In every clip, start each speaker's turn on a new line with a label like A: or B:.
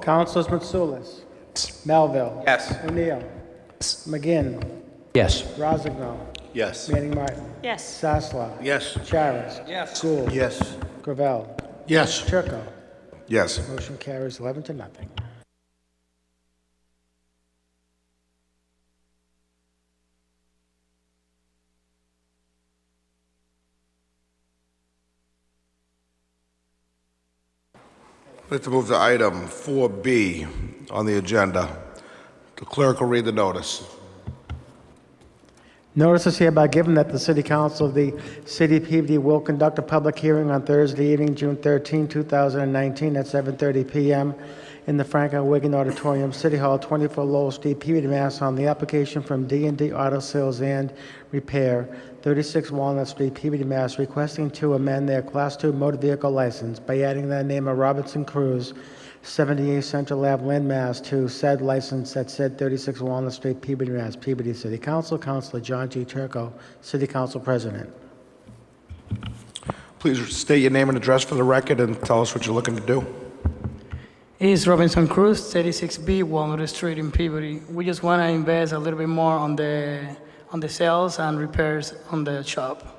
A: Councilors Mitsoulas. Melville.
B: Yes.
A: O'Neill. McGinn.
C: Yes.
A: Rosignol.
D: Yes.
A: Manning Martin.
E: Yes.
A: Sasla.
D: Yes.
A: Charis.
B: Yes.
A: Gould.
D: Yes.
A: Gravel.
D: Yes.
A: Turco.
D: Yes.
A: Motion carries 11 to nothing.
D: Let's move to item 4B on the agenda. The clerk will read the notice.
A: Notice is hereby given that the City Council of the City of PVD will conduct a public hearing on Thursday evening, June 13, 2019, at 7:30 PM in the Franklin Wigan Auditorium, City Hall, 24 Lowell Street, PVD, Mass, on the application from d and d Auto Sales and Repair, 36 Walnut Street, PVD, Mass, requesting to amend their Class II motor vehicle license by adding the name of Robinson Cruz 78 Central Ave, Lynn, Mass. to said license at said 36 Walnut Street, Peabody, Mass. Peabody City Council, Councilor John G. Turco, City Council President.
D: Please state your name and address for the record and tell us what you're looking to do.
F: It's Robinson Cruz, 36B Walnut Street in Peabody. We just want to invest a little bit more on the, on the sales and repairs on the shop.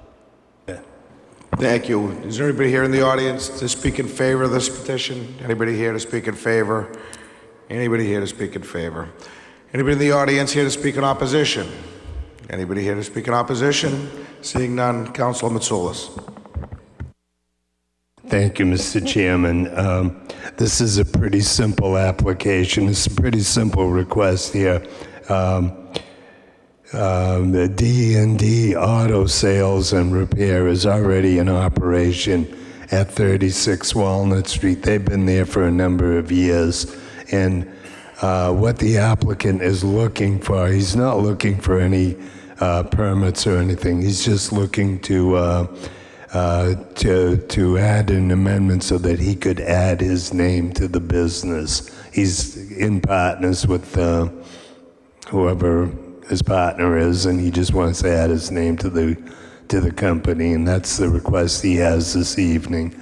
D: Thank you. Is there anybody here in the audience to speak in favor of this petition? Anybody here to speak in favor? Anybody here to speak in favor? Anybody in the audience here to speak in opposition? Anybody here to speak in opposition? Seeing none, Councilor Mitsoulas.
G: Thank you, Mr. Chairman. Um, This is a pretty simple application. It's a pretty simple request here. Um, um, The d and D Auto Sales and Repair is already in operation at 36 Walnut Street. They've been there for a number of years. And uh, what the applicant is looking for, he's not looking for any uh, permits or anything. He's just looking to uh, uh, to, to add an amendment so that he could add his name to the business. He's in partners with uh, whoever his partner is, and he just wants to add his name to the, to the company, and that's the request he has this evening.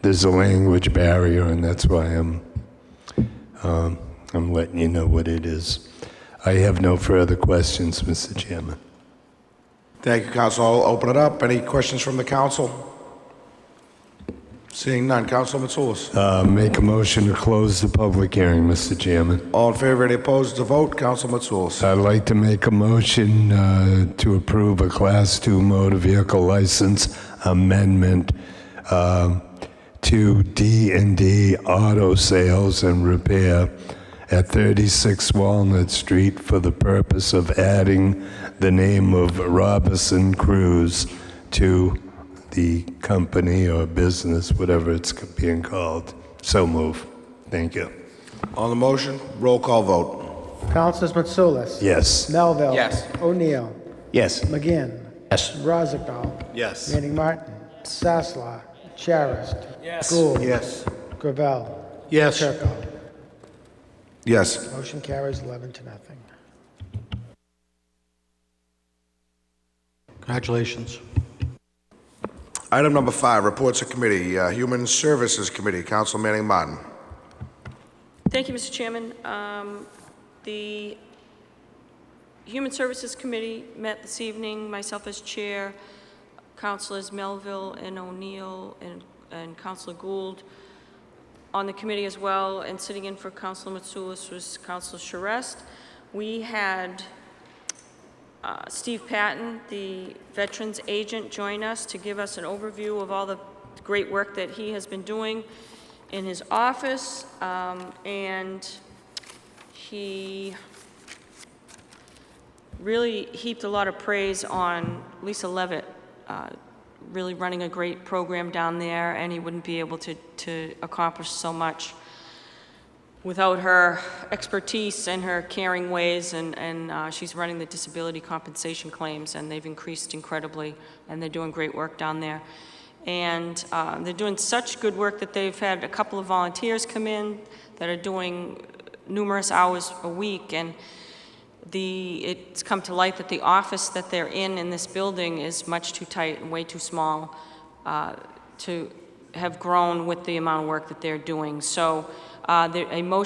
G: There's a language barrier, and that's why I'm, um, I'm letting you know what it is. I have no further questions, Mr. Chairman.
D: Thank you, Council. I'll open it up. Any questions from the council? Seeing none, Council Mitsoulas.
G: Uh, Make a motion to close the public hearing, Mr. Chairman.
D: All in favor, any opposed to vote, Council Mitsoulas.
G: I'd like to make a motion uh, to approve a Class II motor vehicle license amendment um, to d and D Auto Sales and Repair at 36 Walnut Street for the purpose of adding the name of Robinson Cruz to the company or business, whatever it's being called. So move. Thank you.
D: On the motion, roll call vote.
A: Councilors Mitsoulas.
G: Yes.
A: Melville.
B: Yes.
A: O'Neill.
C: Yes.
A: McGinn.
C: Yes.
A: Rosignol.
D: Yes.
A: Manning Martin. Sasla. Charis. Gould.
D: Yes.
A: Gravel.
D: Yes.
A: Turco.
D: Yes.
A: Motion carries 11 to nothing.
H: Congratulations.
D: Item number five, reports of committee, uh, Human Services Committee, Council Manning Martin.
E: Thank you, Mr. Chairman. Um, The Human Services Committee met this evening, myself as chair, Councilors Melville and O'Neill and- and Councilor Gould on the committee as well, and sitting in for Councilor Mitsoulas was Councilor Charest. We had uh, Steve Patton, the Veterans Agent, join us to give us an overview of all the great work that he has been doing in his office, um, and he really heaped a lot of praise on Lisa Levitt, uh, really running a great program down there, and he wouldn't be able to, to accomplish so much without her expertise and her caring ways, and, and uh, she's running the disability compensation claims, and they've increased incredibly, and they're doing great work down there. And uh, they're doing such good work that they've had a couple of volunteers come in that are doing numerous hours a week, and the, it's come to light that the office that they're in, in this building, is much too tight and way too small uh, to have grown with the amount of work that they're doing. So uh, there- a motion